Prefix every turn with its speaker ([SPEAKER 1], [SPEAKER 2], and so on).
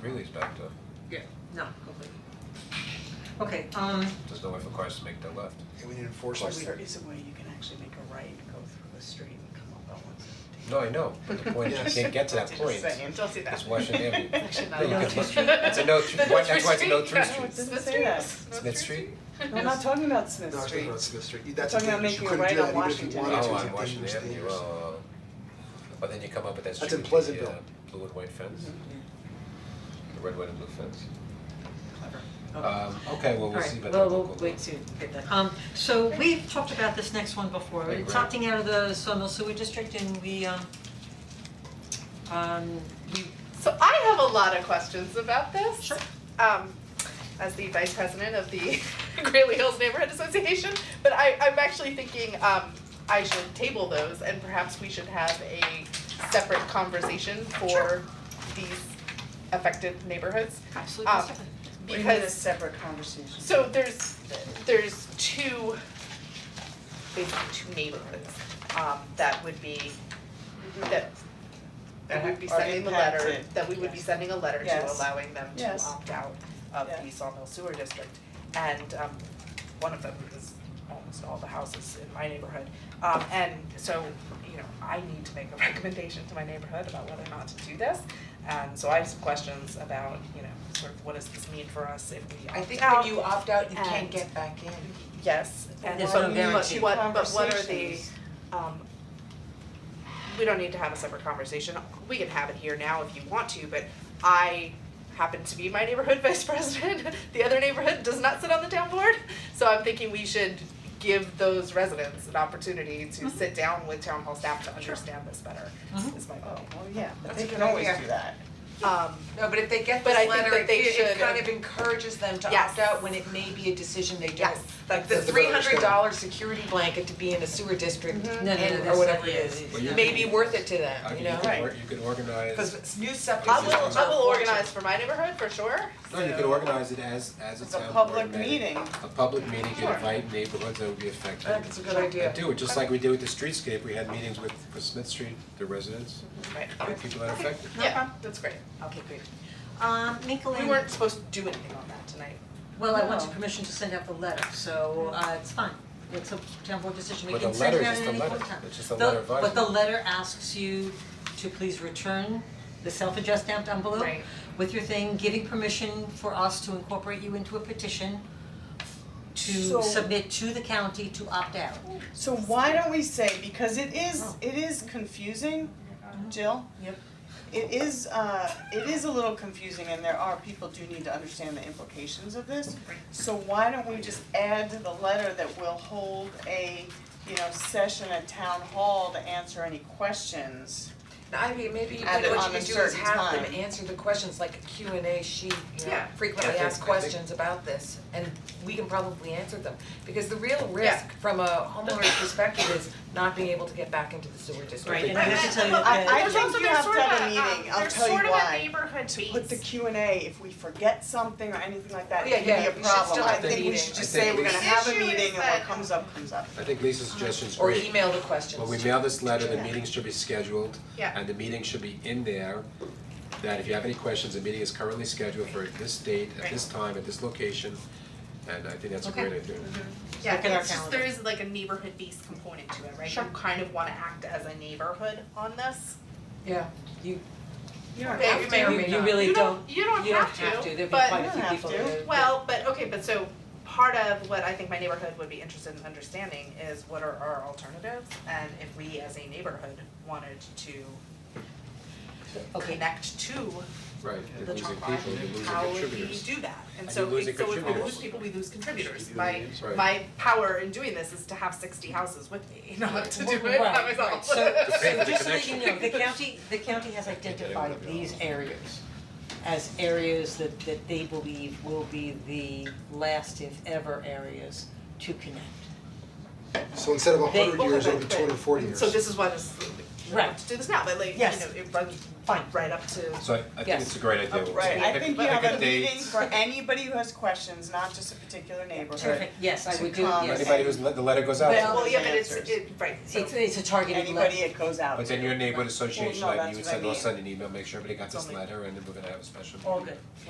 [SPEAKER 1] Greeley's back to,
[SPEAKER 2] Yeah, no, completely. Okay, um,
[SPEAKER 1] there's no way for cars to make that left.
[SPEAKER 3] And we need enforcement.
[SPEAKER 4] Or there is a way you can actually make a right, go through a street and come up on one seventeen.
[SPEAKER 1] No, I know, but the point, is you can't get to that point,
[SPEAKER 4] Just saying, don't do that.
[SPEAKER 1] it's Washington Avenue.
[SPEAKER 4] Actually, not
[SPEAKER 1] Yeah, you
[SPEAKER 4] allowed.
[SPEAKER 1] can- It's a no, thr- why- that's why it's a no through
[SPEAKER 5] Smith
[SPEAKER 1] street.
[SPEAKER 5] Street.
[SPEAKER 4] Doesn't say that.
[SPEAKER 1] Smith Street?
[SPEAKER 4] No, I'm not talking about Smith
[SPEAKER 3] No, I
[SPEAKER 4] Street.
[SPEAKER 3] think that's Smith Street, that's the
[SPEAKER 4] Talking
[SPEAKER 3] thing, you
[SPEAKER 4] about making a
[SPEAKER 3] couldn't do
[SPEAKER 4] right
[SPEAKER 3] that
[SPEAKER 4] on
[SPEAKER 3] even if you
[SPEAKER 4] Washington.
[SPEAKER 3] wanted to,
[SPEAKER 1] Oh, on
[SPEAKER 3] it's a dangerous,
[SPEAKER 1] Washington Avenue,
[SPEAKER 3] dangerous thing.
[SPEAKER 1] oh, but then you come up with that
[SPEAKER 3] That's
[SPEAKER 1] street
[SPEAKER 3] in
[SPEAKER 1] with the
[SPEAKER 3] Pleasantville. Mm-hmm.
[SPEAKER 1] uh, blue and white fence, the red, white and blue fence.
[SPEAKER 4] Mm-hmm. Clever.
[SPEAKER 1] Um, okay, well, we'll
[SPEAKER 2] Alright,
[SPEAKER 1] see about the
[SPEAKER 5] Well,
[SPEAKER 1] local.
[SPEAKER 5] we'll wait to get that.
[SPEAKER 2] um, so we've talked about this next one before,
[SPEAKER 1] Right,
[SPEAKER 2] it's
[SPEAKER 1] right.
[SPEAKER 2] opting out of the Sawmill Sewer District and we, um, um, we,
[SPEAKER 5] So I have a lot of questions about this.
[SPEAKER 2] Sure.
[SPEAKER 5] Um, as the vice president of the Greeley Hills Neighborhood Association, but I, I'm actually thinking, um, I should table those and perhaps we should have a separate conversation for
[SPEAKER 2] Sure.
[SPEAKER 5] these affected neighborhoods.
[SPEAKER 2] absolutely
[SPEAKER 5] Um,
[SPEAKER 2] separate.
[SPEAKER 4] What do you mean a
[SPEAKER 5] Because
[SPEAKER 4] separate conversation?
[SPEAKER 5] So there's, there's two, basically two neighborhoods, um, that would be, that, that would be
[SPEAKER 4] That are
[SPEAKER 5] sending the letter,
[SPEAKER 4] impacted,
[SPEAKER 5] that we would be
[SPEAKER 4] yes.
[SPEAKER 5] sending a letter to
[SPEAKER 4] Yes.
[SPEAKER 5] allowing them to
[SPEAKER 4] Yes.
[SPEAKER 5] opt out of the
[SPEAKER 4] Yeah.
[SPEAKER 5] Sawmill Sewer District. And, um, one of them is almost all the houses in my neighborhood. Um, and so, you know, I need to make a recommendation to my neighborhood about whether or not to do this. And so I have some questions about, you know, sort of what does this mean for us if we
[SPEAKER 6] I
[SPEAKER 5] opt
[SPEAKER 6] think
[SPEAKER 5] out?
[SPEAKER 6] when you opt out, you
[SPEAKER 5] and-
[SPEAKER 6] can't get back in.
[SPEAKER 5] Yes, and
[SPEAKER 2] There's
[SPEAKER 5] but
[SPEAKER 2] no
[SPEAKER 5] but
[SPEAKER 2] guarantee.
[SPEAKER 5] what, but what are the,
[SPEAKER 4] Conversations.
[SPEAKER 5] um, we don't need to have a separate conversation, we can have it here now if you want to, but I happen to be my neighborhood vice president, the other neighborhood does not sit on the town board, so I'm thinking we should give those residents an opportunity to
[SPEAKER 2] Mm-hmm.
[SPEAKER 5] sit down with town hall staff to understand this better,
[SPEAKER 2] Mhm.
[SPEAKER 5] is my
[SPEAKER 4] Oh,
[SPEAKER 5] vote.
[SPEAKER 4] well, yeah, but
[SPEAKER 6] That's
[SPEAKER 4] they
[SPEAKER 6] a
[SPEAKER 4] can
[SPEAKER 6] good
[SPEAKER 4] always
[SPEAKER 6] idea.
[SPEAKER 4] do that.
[SPEAKER 5] Um,
[SPEAKER 6] No, but if they get
[SPEAKER 5] But I
[SPEAKER 6] this
[SPEAKER 5] think
[SPEAKER 6] letter,
[SPEAKER 5] that
[SPEAKER 6] it,
[SPEAKER 5] they
[SPEAKER 6] it
[SPEAKER 5] should-
[SPEAKER 6] kind of encourages them to
[SPEAKER 5] Yes.
[SPEAKER 6] opt out when it may be a decision they don't.
[SPEAKER 5] Yes.
[SPEAKER 6] Like the
[SPEAKER 3] That's the
[SPEAKER 6] three
[SPEAKER 3] better
[SPEAKER 6] hundred dollar security blanket to be in a sewer district
[SPEAKER 2] No, no, no,
[SPEAKER 6] and,
[SPEAKER 2] that's
[SPEAKER 6] or whatever
[SPEAKER 2] not-
[SPEAKER 6] it is,
[SPEAKER 2] yeah,
[SPEAKER 1] But you
[SPEAKER 6] may
[SPEAKER 1] can-
[SPEAKER 6] be worth it to
[SPEAKER 1] I
[SPEAKER 6] them,
[SPEAKER 1] mean,
[SPEAKER 6] you
[SPEAKER 1] you
[SPEAKER 6] know?
[SPEAKER 1] can, or- you can organize,
[SPEAKER 6] Cause it's new septic
[SPEAKER 5] I
[SPEAKER 6] systems.
[SPEAKER 5] will, I will
[SPEAKER 6] are fortunate.
[SPEAKER 5] organize for my neighborhood for sure,
[SPEAKER 1] no, you can
[SPEAKER 4] So-
[SPEAKER 1] organize it as, as a
[SPEAKER 4] It's a
[SPEAKER 1] town board
[SPEAKER 4] public
[SPEAKER 1] meeting.
[SPEAKER 4] meeting.
[SPEAKER 1] A public meeting, you
[SPEAKER 5] Sure.
[SPEAKER 1] invite neighborhoods that would be affected.
[SPEAKER 6] That's a good idea.
[SPEAKER 1] And do it, just like we did with the streetscape, we had meetings with, with Smith Street, the residents,
[SPEAKER 5] right,
[SPEAKER 1] and people that are affected.
[SPEAKER 5] yeah, that's great,
[SPEAKER 6] Okay, great.
[SPEAKER 2] Um, Michelin-
[SPEAKER 5] we weren't supposed to do anything on that tonight.
[SPEAKER 2] well, I want your
[SPEAKER 4] No.
[SPEAKER 2] permission to send out the letter, so, uh, it's fine, it's a town board decision, we
[SPEAKER 1] But the
[SPEAKER 2] can send
[SPEAKER 1] letter
[SPEAKER 2] it
[SPEAKER 1] is
[SPEAKER 2] out at
[SPEAKER 1] just a
[SPEAKER 2] any point in
[SPEAKER 1] letter.
[SPEAKER 2] time.
[SPEAKER 1] It's just a
[SPEAKER 2] The-
[SPEAKER 1] letter advising.
[SPEAKER 2] But the letter asks you to please return the self-addressed stamped envelope
[SPEAKER 5] Right.
[SPEAKER 2] with your thing, giving permission for us to incorporate you into a petition to
[SPEAKER 4] So-
[SPEAKER 2] submit to the county to opt out.
[SPEAKER 4] So why don't we say, because it is,
[SPEAKER 2] Oh.
[SPEAKER 4] it is confusing, Jill?
[SPEAKER 2] Yep.
[SPEAKER 4] It is, uh, it is a little confusing and there are, people do need to understand the implications of this. So why don't we just add to the letter that we'll hold a, you know, session at town hall to answer any questions?
[SPEAKER 6] Now, I mean, maybe
[SPEAKER 4] At
[SPEAKER 6] even
[SPEAKER 4] a-
[SPEAKER 6] what
[SPEAKER 4] on
[SPEAKER 6] you
[SPEAKER 4] a
[SPEAKER 6] could do is
[SPEAKER 4] certain
[SPEAKER 6] have them
[SPEAKER 4] time.
[SPEAKER 6] answer the questions like a Q and A sheet, you know,
[SPEAKER 5] Yeah.
[SPEAKER 1] I
[SPEAKER 6] frequently
[SPEAKER 1] think-
[SPEAKER 6] asked
[SPEAKER 1] I think-
[SPEAKER 6] questions about this, and we can probably answer them. Because the real risk from a homeowner's perspective is not being able to get back into the sewer district.
[SPEAKER 2] Right, and I have to tell you that
[SPEAKER 4] I- I
[SPEAKER 2] the-
[SPEAKER 4] think you have to have a meeting. I'll tell you why.
[SPEAKER 5] There's um, sort of a, um, there's sort of a neighborhood base.
[SPEAKER 4] Put the Q and A, if we forget something or anything like that,
[SPEAKER 6] Oh, Yeah,
[SPEAKER 4] it could
[SPEAKER 6] yeah,
[SPEAKER 4] be
[SPEAKER 6] we
[SPEAKER 4] a
[SPEAKER 6] should still
[SPEAKER 4] problem. I
[SPEAKER 6] have the
[SPEAKER 4] think we
[SPEAKER 6] meeting.
[SPEAKER 4] should just
[SPEAKER 1] I think
[SPEAKER 4] say we're
[SPEAKER 1] we
[SPEAKER 4] gonna
[SPEAKER 5] should-
[SPEAKER 4] have a
[SPEAKER 5] The issue
[SPEAKER 4] meeting and
[SPEAKER 5] is
[SPEAKER 4] what
[SPEAKER 5] that-
[SPEAKER 4] comes up, comes up.
[SPEAKER 1] I think Lisa's
[SPEAKER 4] Hmm.
[SPEAKER 1] suggestion is
[SPEAKER 6] Or
[SPEAKER 1] great.
[SPEAKER 6] email the questions.
[SPEAKER 1] When we mail this letter, the
[SPEAKER 4] Yeah.
[SPEAKER 1] meeting should be scheduled.
[SPEAKER 5] Yeah.
[SPEAKER 1] And the meeting should be in there, that if you have any questions, the meeting is currently scheduled for this date, at this time, at this location. And I think that's a great
[SPEAKER 2] Okay.
[SPEAKER 1] idea.
[SPEAKER 5] Yeah,
[SPEAKER 2] Look at our
[SPEAKER 5] it's just,
[SPEAKER 2] calendar.
[SPEAKER 5] there is like a neighborhood based component to it, right? You kind of wanna act as a neighborhood on this.
[SPEAKER 6] Yeah.
[SPEAKER 5] Okay,
[SPEAKER 6] may or may
[SPEAKER 2] You
[SPEAKER 6] not.
[SPEAKER 2] really
[SPEAKER 5] You
[SPEAKER 2] don't,
[SPEAKER 5] don't, you don't
[SPEAKER 2] you don't have to, there'd be quite
[SPEAKER 4] You
[SPEAKER 2] a
[SPEAKER 4] don't
[SPEAKER 2] few
[SPEAKER 4] have
[SPEAKER 2] people
[SPEAKER 4] to.
[SPEAKER 2] that would-
[SPEAKER 5] Well, but, okay, but so part of what I think my neighborhood would be interested in understanding is what are our alternatives? And if we as a neighborhood wanted to
[SPEAKER 2] Okay,
[SPEAKER 5] connect to
[SPEAKER 1] Right,
[SPEAKER 5] the
[SPEAKER 1] you're
[SPEAKER 5] top
[SPEAKER 1] losing
[SPEAKER 5] line,
[SPEAKER 1] people, you're losing
[SPEAKER 5] how would we
[SPEAKER 1] contributors.
[SPEAKER 5] do that? And
[SPEAKER 1] And
[SPEAKER 5] so
[SPEAKER 1] you're losing
[SPEAKER 5] if, so if we
[SPEAKER 1] contributors.
[SPEAKER 5] lose people, we lose contributors.
[SPEAKER 3] Should
[SPEAKER 5] My,
[SPEAKER 3] be
[SPEAKER 1] the names.
[SPEAKER 5] my power in doing this is to have sixty houses with me, not to do it by
[SPEAKER 2] Right,
[SPEAKER 5] myself.
[SPEAKER 2] right, so so
[SPEAKER 1] the
[SPEAKER 2] just so that you
[SPEAKER 1] connection.
[SPEAKER 2] know, the county, the county has identified these areas as areas that that they believe will be the last if ever areas to connect.
[SPEAKER 3] So instead of a
[SPEAKER 2] They-
[SPEAKER 3] hundred years, it'll be two hundred and forty years.
[SPEAKER 5] So this is why this, we
[SPEAKER 2] Right.
[SPEAKER 5] want to do this now, but like, you know,
[SPEAKER 2] Yes.
[SPEAKER 5] it runs
[SPEAKER 2] Fine.
[SPEAKER 5] right up to.
[SPEAKER 1] So I, I think
[SPEAKER 2] Yes.
[SPEAKER 1] it's a great idea.
[SPEAKER 5] Oh,
[SPEAKER 4] Right, I think you
[SPEAKER 1] Pick-
[SPEAKER 4] have
[SPEAKER 1] pick
[SPEAKER 4] a
[SPEAKER 1] date.
[SPEAKER 4] meeting for anybody who has questions, not just a particular neighborhood.
[SPEAKER 2] Terrific, yes, I
[SPEAKER 4] To
[SPEAKER 2] would do,
[SPEAKER 4] come
[SPEAKER 2] yes.
[SPEAKER 1] Anybody who's, the letter goes out,
[SPEAKER 4] Well-
[SPEAKER 1] to.
[SPEAKER 5] Well, yeah, but it's,
[SPEAKER 4] answers.
[SPEAKER 5] it, right, so.
[SPEAKER 2] It's it's a targeted level.
[SPEAKER 4] Anybody it goes out to.
[SPEAKER 1] but then your neighborhood association,
[SPEAKER 4] Well, no,
[SPEAKER 1] like, you would
[SPEAKER 4] that's what I
[SPEAKER 1] send, we'll
[SPEAKER 4] mean.
[SPEAKER 1] send an email, make sure everybody got this
[SPEAKER 5] Only-
[SPEAKER 1] letter, and then we're gonna have a special meeting.
[SPEAKER 2] All good.